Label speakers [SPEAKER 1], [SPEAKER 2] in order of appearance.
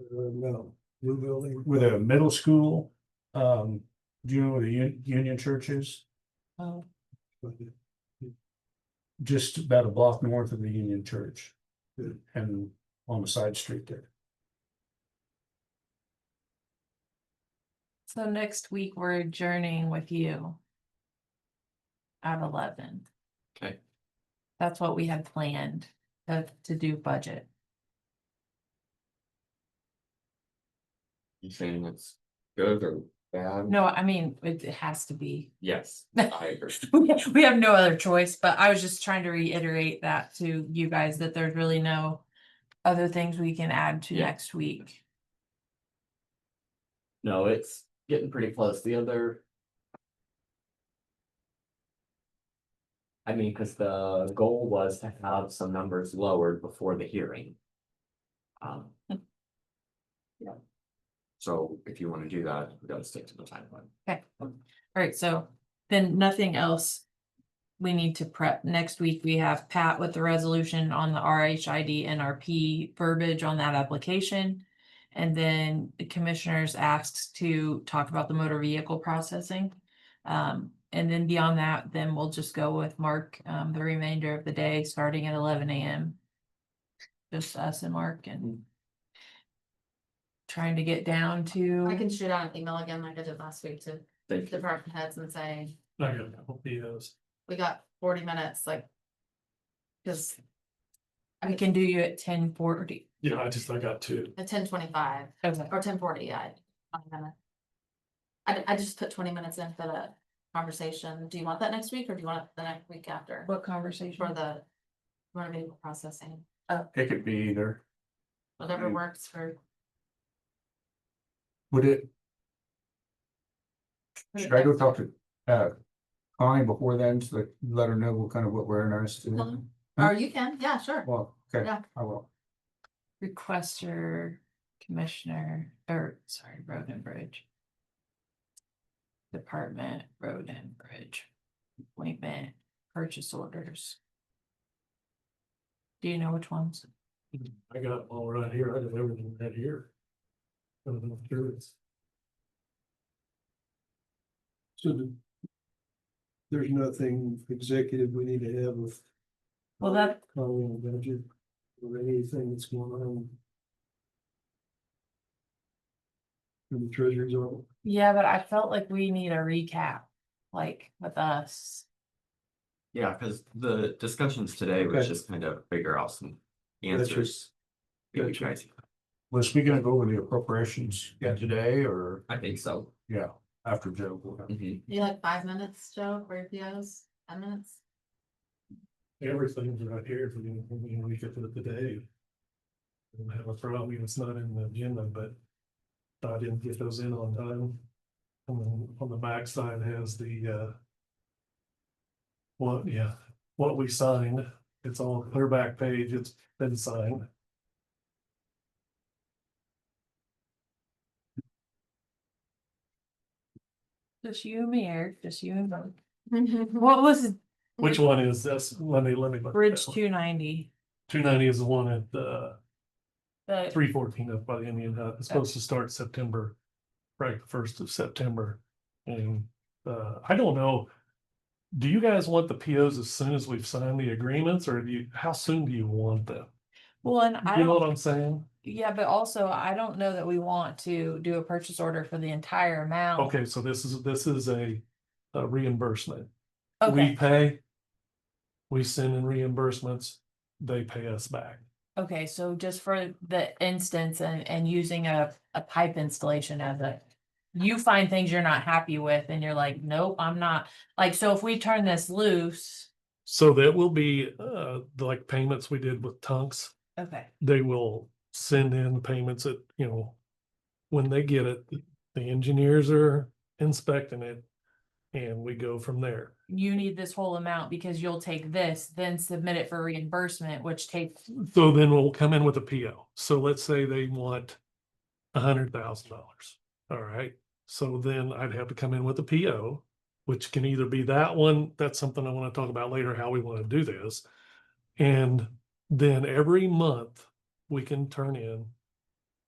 [SPEAKER 1] Uh, No, new building.
[SPEAKER 2] with a middle school. Um, do you know where the Un- Union Church is?
[SPEAKER 3] Oh,
[SPEAKER 2] Just about a block north of the Union Church.
[SPEAKER 1] Yeah.
[SPEAKER 2] And on the side street there.
[SPEAKER 3] so next week we're adjourning with you. At eleven,
[SPEAKER 4] Okay,
[SPEAKER 3] that's what we had planned, to, to do budget.
[SPEAKER 4] you saying it's good or bad?
[SPEAKER 3] No, I mean, it it has to be.
[SPEAKER 4] Yes, I agree.
[SPEAKER 3] We have no other choice, but I was just trying to reiterate that to you guys that there's really no. Other things we can add to
[SPEAKER 4] Yeah.
[SPEAKER 3] next week.
[SPEAKER 4] No, it's getting pretty close. The other. I mean, cause the goal was to have some numbers lowered before the hearing. Um. Yeah. So if you wanna do that, we gotta stick to the timeline.
[SPEAKER 3] Alright, so then nothing else. We need to prep. Next week, we have Pat with the resolution on the RHID NRP verbiage on that application. And then the commissioners asks to talk about the motor vehicle processing. Um, and then beyond that, then we'll just go with Mark, um, the remainder of the day, starting at eleven AM. Just us and Mark and trying to get down to.
[SPEAKER 5] I can shoot out an email again like I did last week to
[SPEAKER 4] Thank you.
[SPEAKER 5] department heads and say,
[SPEAKER 1] I got a couple POs.
[SPEAKER 5] we got forty minutes, like. Cause
[SPEAKER 3] We can do you at ten forty.
[SPEAKER 1] Yeah, I just, I got two.
[SPEAKER 5] at ten twenty-five
[SPEAKER 3] Okay.
[SPEAKER 5] or ten forty, I. I'm gonna- I, I just put twenty minutes in for the conversation. Do you want that next week or do you want it the next week after?
[SPEAKER 3] What conversation?
[SPEAKER 5] For the. Motor vehicle processing,
[SPEAKER 2] It could be either.
[SPEAKER 5] whatever
[SPEAKER 2] Mm.
[SPEAKER 5] works for.
[SPEAKER 2] Would it,
[SPEAKER 5] for the
[SPEAKER 2] should I go
[SPEAKER 5] next-
[SPEAKER 2] talk to, uh, Connie before then to like, let her know what kind of what we're interested in?
[SPEAKER 5] Mhm. Or you can, yeah, sure.
[SPEAKER 2] Well, okay,
[SPEAKER 5] Yeah.
[SPEAKER 2] I will.
[SPEAKER 3] Requester, commissioner, or sorry, road and bridge. Department, road and bridge, appointment, purchase orders. Do you know which ones?
[SPEAKER 1] I got them all right here. I did everything right here. I don't know if there is. So the- there's nothing executive we need to have with
[SPEAKER 3] Well, that,
[SPEAKER 1] Colleen budget or anything that's going on. In the treasurer's office.
[SPEAKER 3] yeah, but I felt like we need a recap, like with us.
[SPEAKER 4] Yeah, cause the discussions today was
[SPEAKER 1] Okay.
[SPEAKER 4] just kind of figure out some
[SPEAKER 1] Gotcha.
[SPEAKER 4] answers. Maybe
[SPEAKER 1] Gotcha.
[SPEAKER 4] guys-
[SPEAKER 2] Was we gonna go over the appropriations
[SPEAKER 4] Yeah.
[SPEAKER 2] today or,
[SPEAKER 4] I think so.
[SPEAKER 2] yeah, after Joe?
[SPEAKER 4] Mhm.
[SPEAKER 5] You like five minutes, Joe, for your POs, ten minutes?
[SPEAKER 1] Everything's right here for you, you know, we get to it today. Don't have a problem, it's not in the agenda, but I didn't get those in on time. And then on the back side has the uh. What, yeah, what we signed, it's all clear back page, it's been signed.
[SPEAKER 3] Just you and me, Eric, just you and Mark. What was
[SPEAKER 1] Which one is this? Let me, let me.
[SPEAKER 3] Mm-hmm. Bridge two ninety?
[SPEAKER 1] Two ninety is the one at uh
[SPEAKER 3] The
[SPEAKER 1] three fourteen up by the Indian Hut. It's supposed to start September, right, the first of September. And uh, I don't know. Do you guys want the POs as soon as we've signed the agreements or do you, how soon do you want them?
[SPEAKER 3] Well, and I
[SPEAKER 1] You know
[SPEAKER 3] don't,
[SPEAKER 1] what I'm saying?
[SPEAKER 3] yeah, but also I don't know that we want to do a purchase order for the entire amount.
[SPEAKER 1] Okay, so this is, this is a a reimbursement. We
[SPEAKER 3] Okay,
[SPEAKER 1] pay. We send in reimbursements, they pay us back.
[SPEAKER 3] okay, so just for the instance and, and using a, a pipe installation as a. You find things you're not happy with and you're like, nope, I'm not, like, so if we turn this loose.
[SPEAKER 1] So that will be uh, like payments we did with Tunks.
[SPEAKER 3] Okay.
[SPEAKER 1] they will send in the payments that, you know, when they get it, the engineers are inspecting it and we go from there.
[SPEAKER 3] You need this whole amount because you'll take this, then submit it for reimbursement, which takes,
[SPEAKER 1] So then we'll come in with a PO. So let's say they want a hundred thousand dollars. All right. So then I'd have to come in with a PO, which can either be that one, that's something I want to talk about later, how we want to do this. And then every month we can turn in